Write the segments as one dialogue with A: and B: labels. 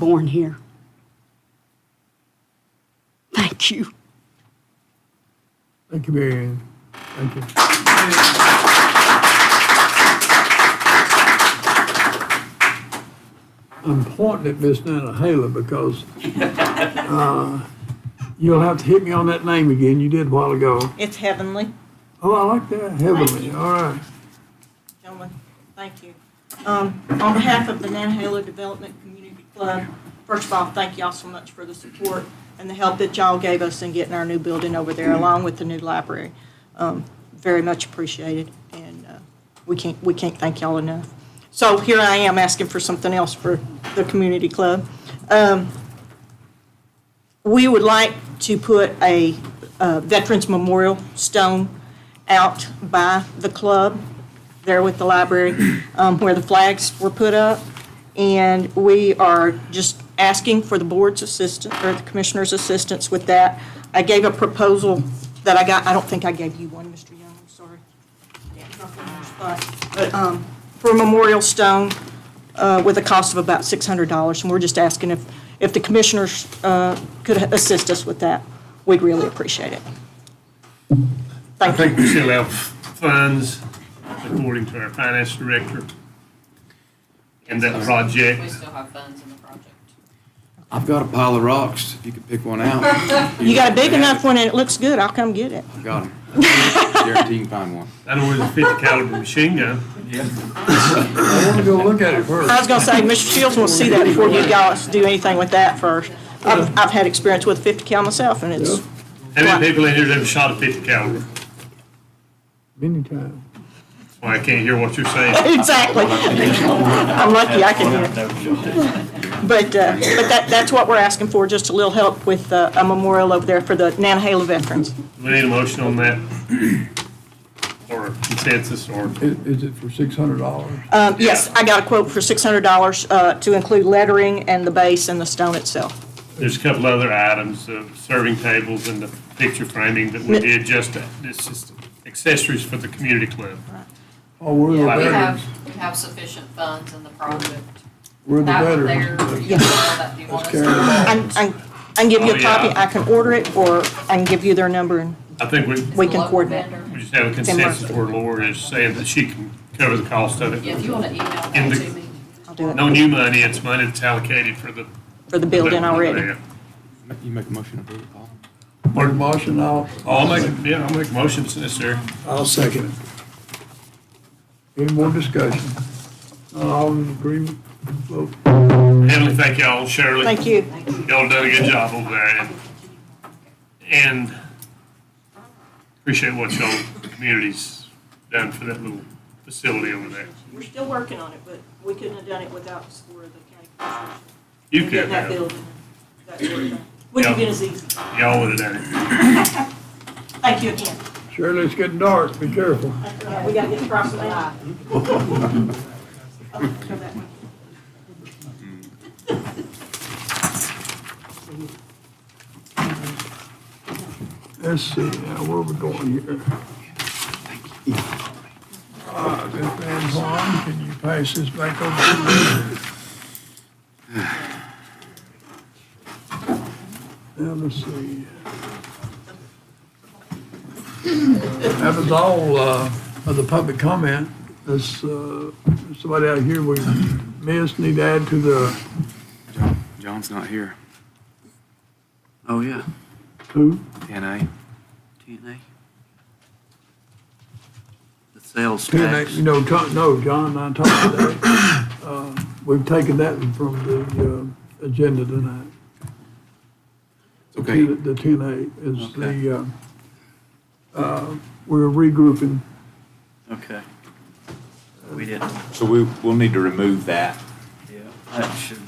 A: born here. Thank you.
B: Thank you, Mary Ann. Thank you. I'm pointing at Miss Nana Hala because uh, you'll have to hit me on that name again. You did a while ago.
C: It's heavenly.
B: Oh, I like that heavily.
C: you.
B: All right.
C: Gentlemen, thank you. Um, On behalf of the Nantahala Development Community Club, first of all, thank y'all so much for the support and the help that y'all gave us in getting our new building over there along with the new library. Um, Very much appreciated, and uh, we can't, we can't thank y'all enough. So here I am asking for something else for the community club. Um, We would like to put a uh, Veterans Memorial Stone out by the club there with the library um, where the flags were put up. And we are just asking for the board's assistance, or the commissioner's assistance with that. I gave a proposal that I got, I don't think I gave you one, Mr. Young, I'm sorry. Yeah, it's not on your spot. But um, for a memorial stone uh, with a cost of about $600. And we're just asking if, if the commissioners uh, could assist us with that. We'd really appreciate it.
D: I
C: Thank you.
D: think we still have funds according to our finance director in that
E: We
D: project.
E: still have funds in the project.
F: I've got a pile of rocks, if you could pick one out.
C: You got a big enough one and it looks good, I'll come get it.
F: I've Got 'em. Guarantee you can find one.
D: I know where's a fifty caliber machine gun.
B: I want to go look at it first.
C: I was gonna say, Mr. Shields will see that before you guys do anything with that first. I've, I've had experience with fifty cal myself and it's,
D: How many people in here have ever shot a fifty caliber?
B: Many times.
D: That's why I can't hear what you're saying.
C: exactly. I'm lucky I can hear. But, uh, but that, that's what we're asking for, just a little help with uh, a memorial over there for the Nantahala veterans.
D: Do we need a motion on that? Or a consensus or?
B: Is, is it for six hundred dollars?
C: Um, yes, I got a quote for six hundred dollars, uh, to include lettering and the base and the stone itself.
D: There's a couple other items, uh, serving tables and the picture framing that we did just, to- this is accessories for the community club.
B: Oh, we're the
E: Yeah, we
B: veterans.
E: have, we have sufficient funds in the project.
B: We're the
E: That there,
B: veterans.
E: you know, that you want us
B: carry it
E: to.
C: I, I, I can give you
D: Oh,
C: a
D: yeah.
C: copy, I can order it, or I can give you their number and
D: I think we,
C: We
E: It's a
C: can
E: local
C: coordinate.
E: vendor.
D: we just have a consensus where Laura is saying that she can cover the cost of it.
E: Yeah, if you wanna email that
D: In the-
E: to me.
C: I'll do it
D: No new money, it's money that's allocated for the.
C: for the building already.
F: You make a motion to approve it, Paul?
B: Mark Marshall, I'll.
D: I'll make, yeah, I'll make motions necessary.
B: I'll second it. Any more discussion? Not all in agreement? Vote.
D: Heavenly, thank y'all, Shirley.
C: Thank you.
D: Y'all done a good job over there and, and appreciate what y'all, the community's done for that little facility over there.
C: We're still working on it, but we couldn't have done it without the support of the county commissioners.
D: You
C: And
D: could
C: getting that
D: have,
C: building, that sort of thing. Wouldn't have been as easy.
D: y'all would have done it.
C: Thank you again.
B: Shirley, it's getting dark, be careful.
C: We gotta get across the line. Go that way.
B: Let's see, now where we going here? Uh, Miss Van Horn, can you pass this back over to me? Now, let's see. That was all, uh, of the public comment. This, uh, somebody out here we missed, need to add to the,
F: John, John's not here. Oh, yeah,
B: who?
F: TNA. TNA? The sales
B: Ten,
F: tax.
B: you know, John, no, John, and I talked today, uh, we've taken that from the, uh, agenda tonight.
F: It's Okay,
B: The- The ten A is
F: Okay.
B: the, uh, uh, we're regrouping.
F: okay. We didn't.
G: So we, we'll need to remove that.
F: Yeah. That should.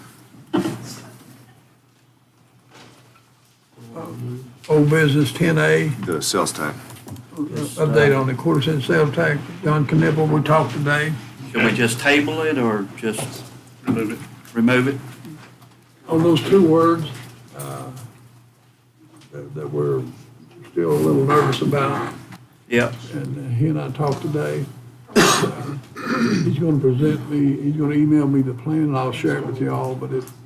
B: Old business ten A, uh,
G: The sales tax.
B: update on the quarter cent sales tax, John Knipple, we talked today.
F: Should we just table it or just
D: Remove it.
F: remove it?
B: On those two words, uh, that that we're still a little nervous about,
F: Yep.
B: and uh, he and I talked today. Uh, He's gonna present me, he's gonna email me the plan, and I'll share it with y'all, but it,